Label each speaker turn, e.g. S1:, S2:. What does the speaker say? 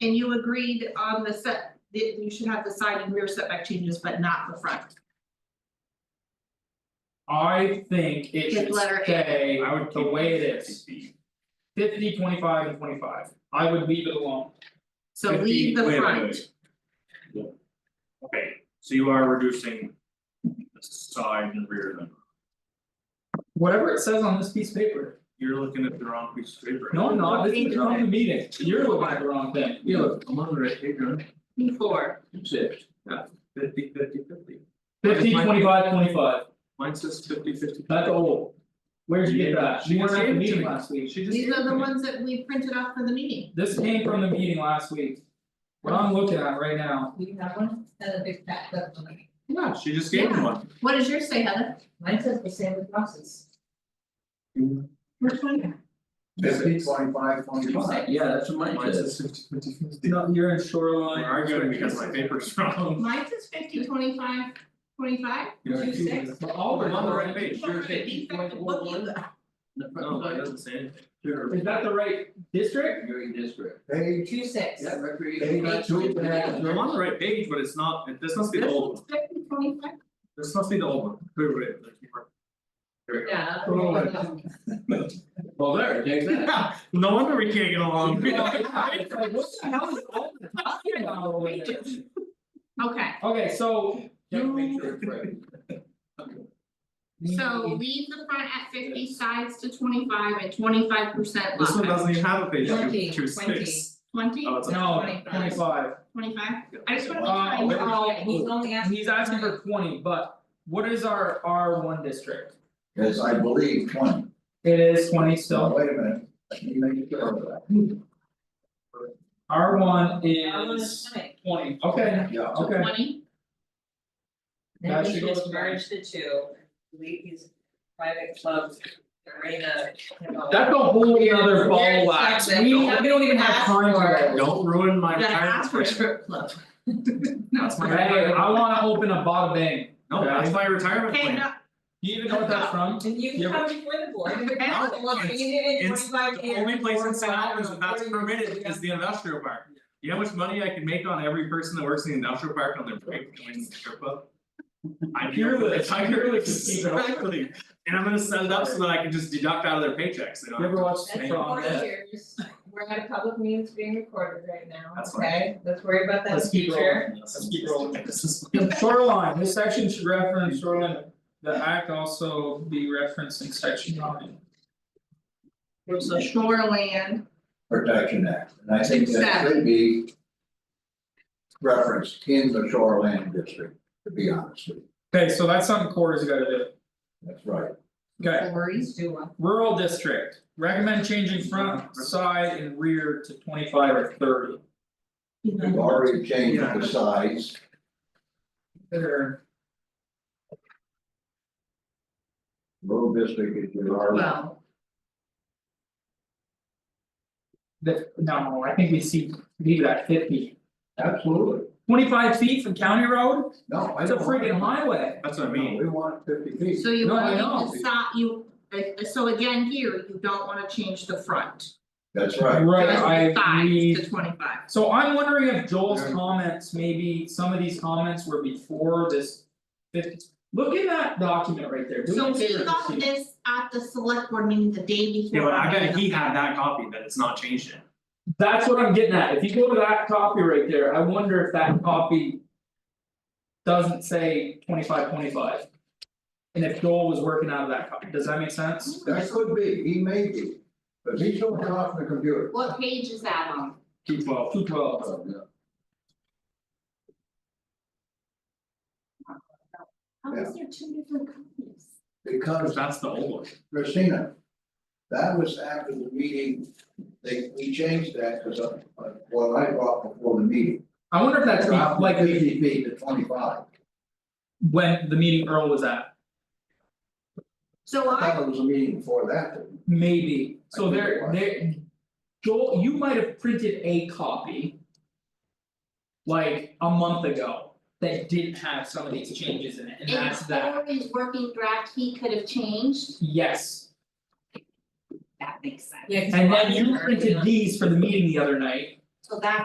S1: And you agreed on the set, that you should have the side and rear setback changes, but not the front.
S2: I think it
S1: Just
S2: should
S1: let her
S2: stay
S3: I would
S2: the
S3: keep
S2: way it
S3: it at
S2: is. 50, 25, and twenty five, I would leave it alone,
S1: So
S2: Fifty-
S1: leave the
S3: wait, wait,
S1: front,
S3: wait. Okay, so you are reducing the side and rear then,
S2: whatever it says on this piece of paper,
S3: you're looking at the wrong piece of paper.
S2: no, I'm not, this is not the meeting, you're looking at the wrong thing, you look.
S3: I'm on the right page, right?
S1: four,
S3: Six. Yeah, fifty, fifty, fifty.
S2: 50, 25, 25.
S3: Mine says fifty, fifty.
S2: that's old. Where'd you get that, you weren't at the
S3: She just gave it to
S2: meeting
S3: me.
S2: last week,
S3: She just.
S1: these
S3: gave
S1: are
S3: it
S1: the
S3: to me.
S1: ones that we printed off for the meeting.
S2: this came from the meeting last week. What I'm looking at right now,
S4: We have one, and a big fat clip on it.
S3: Yeah, she just gave me
S1: Yeah.
S3: one.
S1: What does yours say, Heather?
S4: Mine says the same with boxes.
S1: Which one?
S5: Fifty, twenty-five, twenty-five.
S2: yeah, that's what
S3: Mine says fifty, fifty, fifty.
S2: No, you're in
S3: I'm
S2: shoreline.
S3: arguing because my paper's wrong.
S1: Mine says fifty, twenty-five, twenty-five, two, six.
S2: But all the
S3: I'm on the right page.
S1: People are gonna be back to look at that.
S3: No, mine doesn't say anything.
S2: Is that the right district?
S5: district. Page,
S4: Two six.
S5: page two,
S3: I'm on the right page, but it's not, it- this must be the
S1: This
S3: old,
S1: is fifty, twenty-five,
S3: this must be the old one. Wait, wait, wait, like, you were- There we
S4: Yeah.
S5: Oh, I-
S3: Well, there, take that. No wonder we can't get along.
S2: It's like, what the hell is all the talking about over there?
S1: okay,
S2: Okay, so you,
S1: so leave the front at fifty, sides to twenty-five and twenty-five percent
S3: This one
S1: lot
S3: doesn't even have a page,
S4: Twenty,
S3: two, two,
S4: twenty.
S3: six.
S1: Twenty,
S3: Oh, it's a.
S2: no, twenty five,
S1: twenty-five, I just wanna
S2: Uh,
S3: Oh,
S1: make sure I know.
S2: wait.
S4: Yeah, he's only asking.
S2: he's asking for twenty, but what is our R one district?
S5: Yes, I believe twenty.
S2: It is twenty
S5: So
S2: still,
S5: wait a minute. Let me make sure of that.
S2: R one
S4: I wanna
S2: is
S4: say,
S2: twenty, okay,
S5: Yeah.
S1: So
S2: okay,
S1: Twenty,
S2: That
S4: Maybe we
S2: should
S4: should
S2: go
S4: just
S2: with-
S4: merge the two, leave these private clubs, arena, you know.
S2: that's a whole other ball of
S4: Weird
S2: wax,
S4: stuff that
S2: we
S4: nobody
S2: we don't even have
S4: asked
S2: time for
S4: for.
S2: that.
S3: Don't ruin my
S1: you gotta
S3: retirement
S1: ask for
S3: plan.
S1: strip club.
S3: That's my
S2: Hey,
S3: retirement-
S2: I wanna open a bottle bang,
S3: No, that's my retirement
S1: Okay,
S3: plan.
S1: no,
S2: you even know what that's from?
S4: And you
S2: Yeah,
S4: can come before the board, you
S1: Okay.
S4: in
S3: It's
S4: twenty five
S3: The only place in St. Albans that that's permitted is the industrial park. You know how much money I can make on every person that works in the industrial park on their break going to the strip club? I hear this, I hear this, exactly, and I'm gonna set it up so that I can just deduct out of their paychecks, they don't
S2: You
S3: have to.
S2: ever watch
S4: That's
S2: From
S4: four
S2: that.
S4: years, we're at a public meeting that's being recorded right now,
S3: That's fine.
S4: okay, let's worry about that in the
S2: Let's keep
S4: future.
S2: rolling. Let's keep rolling. Shoreline, this section should reference shoreline, the act also be referencing section nine.
S1: so shoreland,
S5: Protection Act, and I think that should be. Referenced in the shoreline district, to be honest with you,
S2: Okay, so that's something Corey's gotta do,
S5: that's right.
S2: okay,
S1: quarries,
S4: Please do one.
S2: rural district, recommend changing front, side and rear to twenty five or thirty.
S5: We've already changed the size,
S2: There,
S5: rural district is your R one.
S1: well,
S2: the, no, I think we see, leave it at fifty.
S5: Absolutely,
S2: Twenty five feet from county road,
S5: no, I
S2: that's a
S5: don't. want
S2: freaking
S5: it.
S2: highway,
S3: That's what I
S5: No,
S3: mean.
S5: we want fifty feet.
S1: so you
S2: No, I
S1: wanna
S2: know.
S1: leave the side, you, uh, so again, here, you don't wanna change the front.
S5: That's right,
S2: right,
S1: Just the
S2: I agree.
S1: Sides to twenty-five.
S2: So I'm wondering if Joel's
S5: Yeah.
S2: comments, maybe some of these comments were before this fifty. Look at that document right there, do me
S1: So
S2: a
S1: he
S2: favor,
S1: got
S2: Steve.
S1: this at the select board meeting the day before.
S3: Yeah, but I bet he had that copy that it's not changed yet.
S2: That's what I'm getting at, if you go to that copy right there, I wonder if that copy. Doesn't say twenty five twenty five. And if Joel was working out of that copy, does that make sense?
S5: that could be, he may be, but he's only off the computer.
S1: What page is that on?
S3: Two twelve.
S2: Two twelve,
S5: Oh, yeah.
S1: How is there two different copies?
S5: Because
S3: Cause that's the old one.
S5: Christina, that was after the meeting, they, we changed that because of, of what I brought before the meeting.
S2: I wonder if that's
S5: Dropped
S2: like
S5: from Fifty feet to twenty-five,
S2: when the meeting Earl was at,
S1: So
S5: I
S1: I,
S5: thought it was a meeting before that, that
S2: maybe, so
S5: I think it
S2: there
S5: was.
S2: there. Joel, you might have printed a copy. Like a month ago, that didn't have some of these changes in it, and
S1: in
S2: that's that,
S1: Corey's working draft, he could have changed,
S2: yes,
S1: that makes sense.
S4: Yeah, 'cause
S2: and
S4: you're
S2: then
S4: watching
S2: you
S4: her,
S2: printed
S4: know.
S2: these for the meeting the other night.
S1: So that's